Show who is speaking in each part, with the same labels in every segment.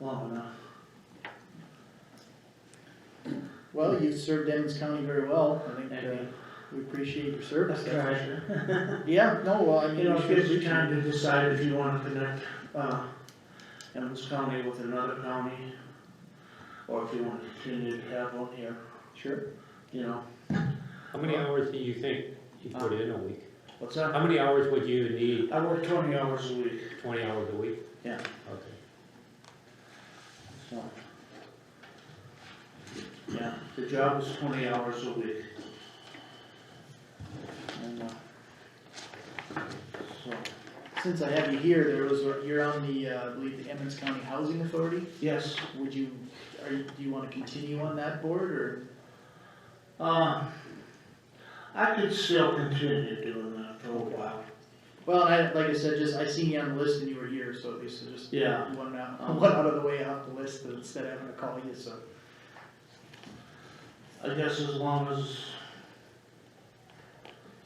Speaker 1: long enough. Well, you served Emmons County very well, I think, uh, we appreciate your service,
Speaker 2: That's
Speaker 1: that's for
Speaker 2: right.
Speaker 1: sure. Yeah, no, well, I
Speaker 2: You
Speaker 1: mean,
Speaker 2: know,
Speaker 1: we
Speaker 2: it
Speaker 1: should
Speaker 2: gives you
Speaker 1: appreciate
Speaker 2: time
Speaker 1: it.
Speaker 2: to decide if you wanna connect, uh, Emmons County with another county. Or if you wanna continue to have one here,
Speaker 1: Sure,
Speaker 2: you know,
Speaker 3: How many hours do you think you put in a week?
Speaker 2: what's that?
Speaker 3: How many hours would you need,
Speaker 2: I work twenty hours a week,
Speaker 3: twenty hours a week?
Speaker 2: Yeah.
Speaker 3: Okay.
Speaker 2: so. Yeah, the job is twenty hours a week. And, uh, So,
Speaker 1: since I have you here, there was, a- you're on the, uh, I believe, the Emmons County Housing Authority,
Speaker 2: yes,
Speaker 1: would you, are, you- do you wanna continue on that board, or?
Speaker 2: uh, I could still continue doing that for a while.
Speaker 1: Well, I, like I said, just, I seen you on the list and you were here, so at least I just.
Speaker 2: Yeah. Um,
Speaker 1: One out, one out of the way off the list instead of having to call you, so.
Speaker 2: I guess as long as,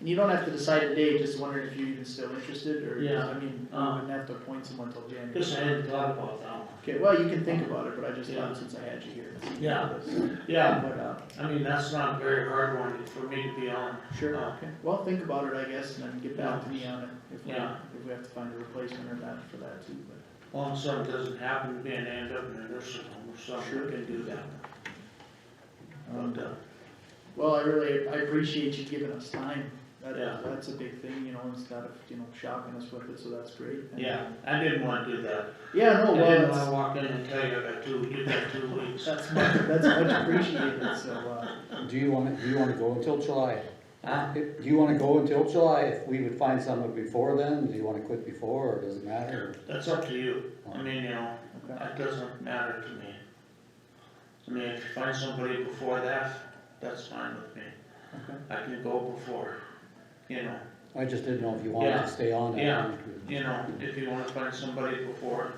Speaker 1: And you don't have to decide today, just wondering if you're even still interested, or,
Speaker 2: Yeah.
Speaker 1: I mean, you
Speaker 2: Um,
Speaker 1: wouldn't have to appoint someone till January.
Speaker 2: guess I hadn't thought about that one.
Speaker 1: Okay, well, you can think about it, but I just
Speaker 2: Yeah.
Speaker 1: thought since I had you here.
Speaker 2: Yeah. Yeah,
Speaker 1: But, uh,
Speaker 2: I mean, that's not a very hard one for me to be on.
Speaker 1: Sure,
Speaker 2: Uh,
Speaker 1: okay, well, think about it, I guess, and then get back to me on it, if we,
Speaker 2: Yeah.
Speaker 1: if we have to find a replacement or not for that too, but.
Speaker 2: Long something doesn't happen to me and end up in a nursing home or something,
Speaker 1: Sure.
Speaker 2: I can do that.
Speaker 1: um,
Speaker 2: But, uh,
Speaker 1: Well, I really, I appreciate you giving us time, that,
Speaker 2: Yeah.
Speaker 1: that's a big thing, you know, instead of, you know, shocking us with it, so that's great. And-
Speaker 2: yeah, uh, I didn't wanna do that.
Speaker 1: Yeah,
Speaker 2: I
Speaker 1: no, Oh, well,
Speaker 2: didn't wanna
Speaker 1: that's,
Speaker 2: walk in and tell you I got two, you got two weeks.
Speaker 1: that's much, that's much appreciated, so, uh,
Speaker 4: Do you wanna, do you wanna go until July?
Speaker 2: Huh?
Speaker 4: If- Do you wanna go until July, if we would find someone before then, do you wanna quit before, or does it matter?
Speaker 2: That's up to you. I mean, you know,
Speaker 1: okay,
Speaker 2: that doesn't matter to me. I mean, if you find somebody before that, that's fine with me.
Speaker 1: okay.
Speaker 2: I can go before, you know.
Speaker 4: I just didn't know if you wanted
Speaker 2: Yeah.
Speaker 4: to stay on. that
Speaker 2: Yeah.
Speaker 4: long.
Speaker 2: you know, if you wanna find somebody before,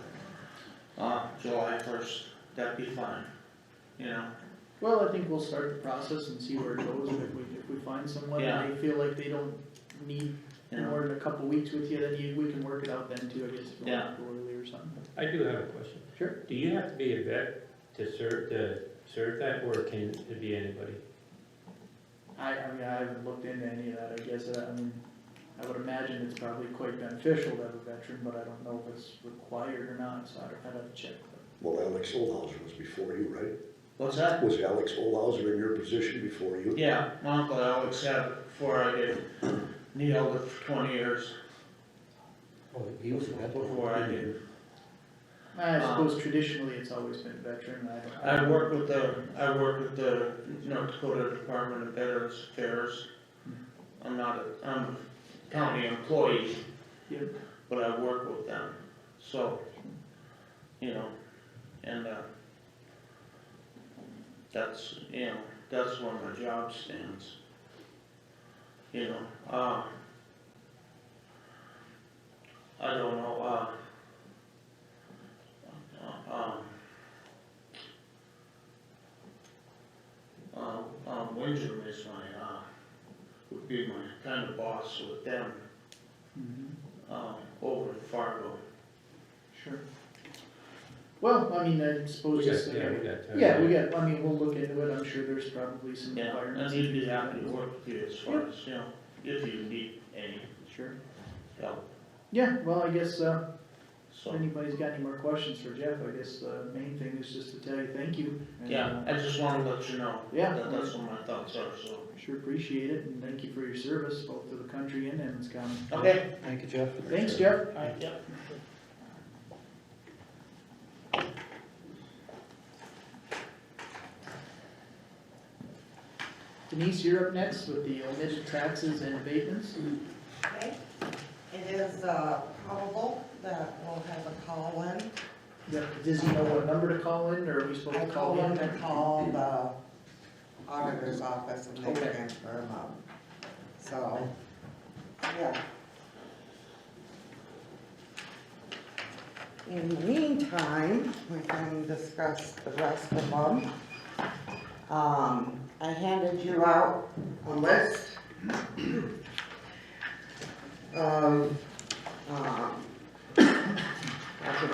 Speaker 2: uh, July first, that'd be fine, you know,
Speaker 1: Well, I think we'll start the process and see where it goes, and if we, if we find someone, and they feel like they don't need
Speaker 2: you know.
Speaker 1: more than a couple weeks with you, then you, we can work it out then too, I guess, if we
Speaker 2: Yeah.
Speaker 1: want to go early or something.
Speaker 3: I do have a question.
Speaker 1: Sure.
Speaker 3: Do you have to be a vet to serve, to serve that, or can it be anybody?
Speaker 1: I, I mean, I haven't looked into any of that, I guess, I I mean, I would imagine it's probably quite beneficial to have a veteran, but I don't know if it's required or not, so I'd, I'd have to check.
Speaker 5: Well, Alex Olhauser was before you, right?
Speaker 2: What's that?
Speaker 5: Was Alex Olhauser in your position before you?
Speaker 2: Yeah, my uncle Alex had it before I did, and he held it for twenty years,
Speaker 4: Oh, he was a vet.
Speaker 2: before I did.
Speaker 1: I
Speaker 2: Um,
Speaker 1: suppose traditionally, it's always been veteran, I don't.
Speaker 2: I worked with the, I worked with the North Dakota Department of Veterans Affairs. I'm not a, I'm a county employee.
Speaker 1: Yep.
Speaker 2: But I work with them, so, you know, and, uh, that's, you know, that's where my job stands. You know, uh, I don't know, uh, uh, um, uh, um, Windsor is my, uh, would be my kind of boss with them,
Speaker 1: Mhm,
Speaker 2: um, over in Fargo.
Speaker 1: Sure. Well, I mean, I suppose just, uh,
Speaker 3: We got- Yeah, we got time.
Speaker 1: yeah, we got, I mean, we'll look into it, I'm sure there's probably some
Speaker 2: Yeah, and
Speaker 1: requirements.
Speaker 2: he'd be happy to work with you as far as, you know, if you need any
Speaker 1: Sure,
Speaker 2: help,
Speaker 1: yeah, well, I guess, uh, If
Speaker 2: so.
Speaker 1: anybody's got any more questions for Jeff, I guess the main thing is just to tell you thank you. and,
Speaker 2: Yeah,
Speaker 1: uh,
Speaker 2: I just wanna let you know.
Speaker 1: Yeah.
Speaker 2: That that's what my thoughts are, so.
Speaker 1: uh, Sure appreciate it, and thank you for your service, both to the country and Emmons County.
Speaker 2: Okay.
Speaker 4: Thank you, Jeff.
Speaker 1: Thanks, Jeff.
Speaker 2: yep.
Speaker 1: Denise, you're up next with the omitted taxes and abatements.
Speaker 6: Okay, it is uh, probable that we'll have a call in.
Speaker 1: Yeah, Does he know what number to call in, or are we supposed
Speaker 6: I
Speaker 1: to call
Speaker 6: told them
Speaker 1: him?
Speaker 6: to call the auditor's office and they
Speaker 1: Okay.
Speaker 6: transfer them up. So, yeah. In the meantime, we can discuss the rest of them. Um, I handed you out a list of, um,